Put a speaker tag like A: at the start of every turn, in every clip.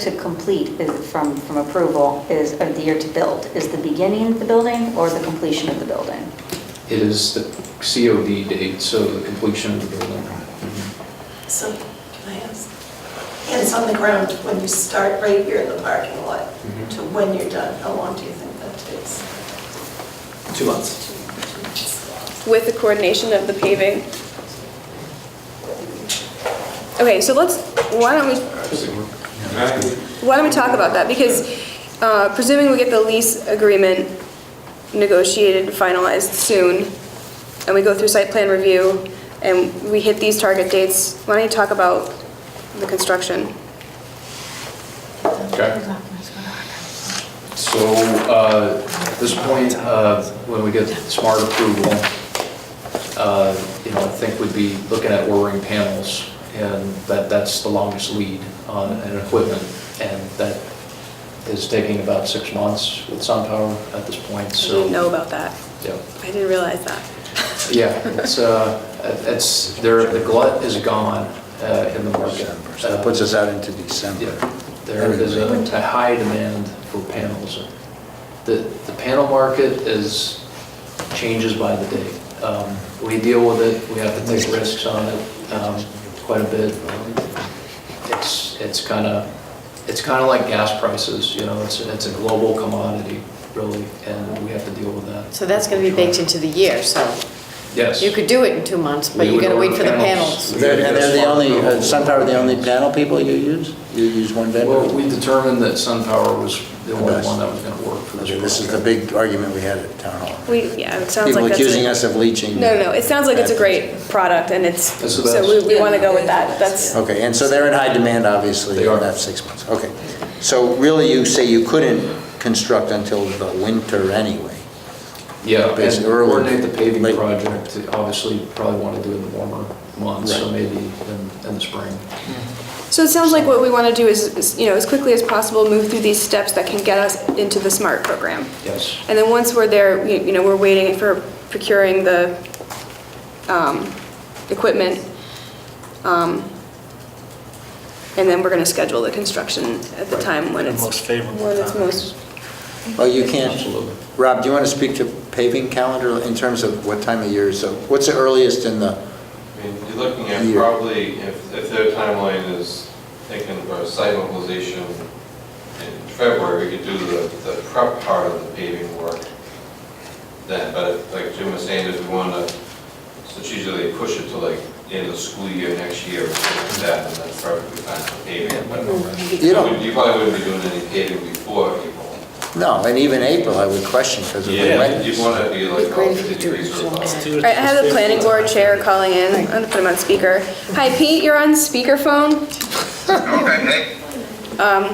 A: to complete is, from, from approval is, or the year to build, is the beginning of the building or the completion of the building?
B: It is the COD date, so the completion of the building.
C: So, can I ask? Hands on the ground, when you start right here in the parking lot,
B: Mhm.
C: to when you're done, how long do you think that takes?
B: Two months.
D: with the coordination of the paving. Okay, so let's, why don't we, why don't we talk about that? Because uh, presuming we get the lease agreement negotiated, finalized soon, and we go through site plan review, and we hit these target dates, why don't you talk about the construction?
B: Okay. So, uh, at this point, uh, when we get smart approval, uh, you know, I think we'd be looking at ordering panels, and that, that's the longest lead on an equipment, and that is taking about six months with SunPower at this point,
D: I
B: so.
D: didn't know about that.
B: Yeah.
D: I didn't realize that.
B: Yeah, it's, uh, it's, there, the glut is gone uh, in the market. Uh,
E: December, so that puts us out into December.
B: Yeah, There is a a high demand for panels. The, the panel market is, changes by the day. Um, We deal with it, we have to take risks on it um, quite a bit. It's, it's kind of, it's kind of like gas prices, you know, it's, it's a global commodity, really, and we have to deal with that.
F: So that's going to be baked into the year, so
B: Yes.
F: you could do it in two months, but
B: We
F: you
B: would
F: got to wait
B: order
F: for the
B: panels.
F: panels.
E: And they're the only, uh, SunPower the only panel people you use? You use one
B: Well,
E: vendor?
B: we determined that SunPower was the only
E: Best.
B: one that was going to work for this
E: Okay,
B: project.
E: This is the big argument we had at town hall.
D: We, yeah, it sounds like that's.
E: People
D: a-
E: accusing us of leaching.
D: No, no, no, it sounds like it's a great product, and it's,
B: It's the
D: so
B: best.
D: we, we want to go with that, that's,
E: Okay, and so they're in high demand, obviously.
B: They are.
E: in that six months, okay. So really, you say you couldn't construct until the winter anyway?
B: Yeah, and
E: Basically, early.
B: coordinate the paving
E: Late.
B: project, obviously, probably want to do it in the warmer months, so
E: Right.
B: maybe in, in the spring.
D: so it sounds like what we want to do is- is, you know, as quickly as possible, move through these steps that can get us into the SMART program.
B: Yes.
D: And then once we're there, we- you know, we're waiting for procuring the, um, equipment. um, And then we're going to schedule the construction at the time when it's.
G: Most favorable
D: When it's
G: time.
D: most,
E: Oh, you can't,
B: Absolutely.
E: Rob, do you want to speak to paving calendar in terms of what time of year? So what's the earliest in the,
H: I mean, you're looking at
E: Year.
H: probably, if, if their timeline is taken for site mobilization in February, we could do the, the prep part of the paving work then, but if, like Jim was saying, if we wanna strategically push it to like the end of school year next year, or something like that, and that's probably fine for paving. but-
E: you don't,
H: You probably wouldn't be doing any paving before April.
E: No, and even April, I would question because of the
H: You'd
E: wetness.
H: wanna be like
F: It'd be great
H: all
F: if you
H: fifty
F: could do it
H: degrees
F: in
H: or
F: July.
H: lower.
G: Do it
D: all right, I have the
G: just
D: planning
G: favorable.
D: board chair calling in, I'm going to put him on speaker. Hi Pete, you're on speakerphone. Um,
I: Okay,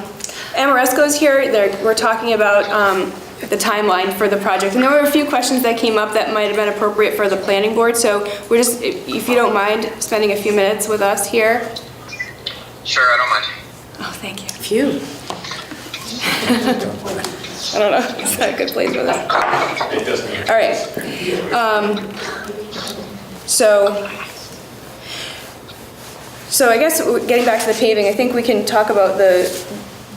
D: Amoresco's here, they're, we're talking about um, the timeline for the project. And there were a few questions that came up that might have been appropriate for the planning board, so we're just, if if you don't mind spending a few minutes with us here.
I: sure, I don't mind.
D: Oh, thank you.
F: Phew.
D: I don't know, it's not a good place for this. All right. Um, So, so I guess w- getting back to the paving, I think we can talk about the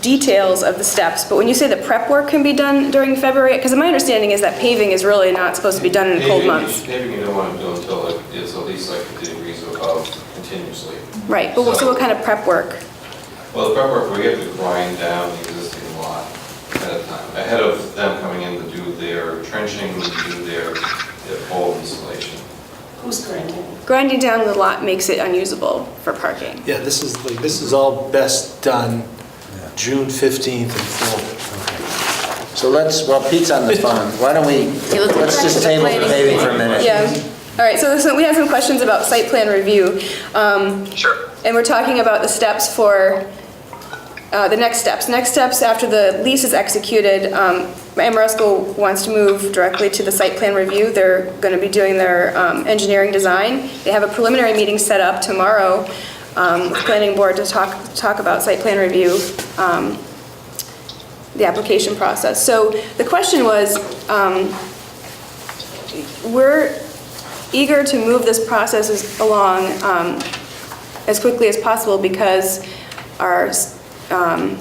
D: details of the steps, but when you say the prep work can be done during February, because my understanding is that paving is really not supposed to be done in the cold
H: Paving-
D: months.
H: Paving you don't wanna do until like, it's at least like fifty degrees or above continuously.
D: Right, but what- so what kind of prep work?
H: Well, the prep work, we have to grind down the existing lot ahead of time, ahead of them coming in to do their trenching, to do their, their pole installation.
C: Who's grinding?
D: Grinding down the lot makes it unusable for parking.
G: Yeah, this is, like this is all best done June 15th and forward.
E: So let's, while Pete's on the phone, why don't we,
F: let's-
E: let's just table the paving for a minute.
D: Yeah, all right, so this- we have some questions about site plan review. Um,
I: Sure.
D: And we're talking about the steps for, uh, the next steps. Next steps after the lease is executed, um, Amoresco wants to move directly to the site plan review. They're going to be doing their um, engineering design. They have a preliminary meeting set up tomorrow um, with planning board to talk, talk about site plan review, um, the application process. So the question was, um, we're eager to move this process as- along um, as quickly as possible because our um,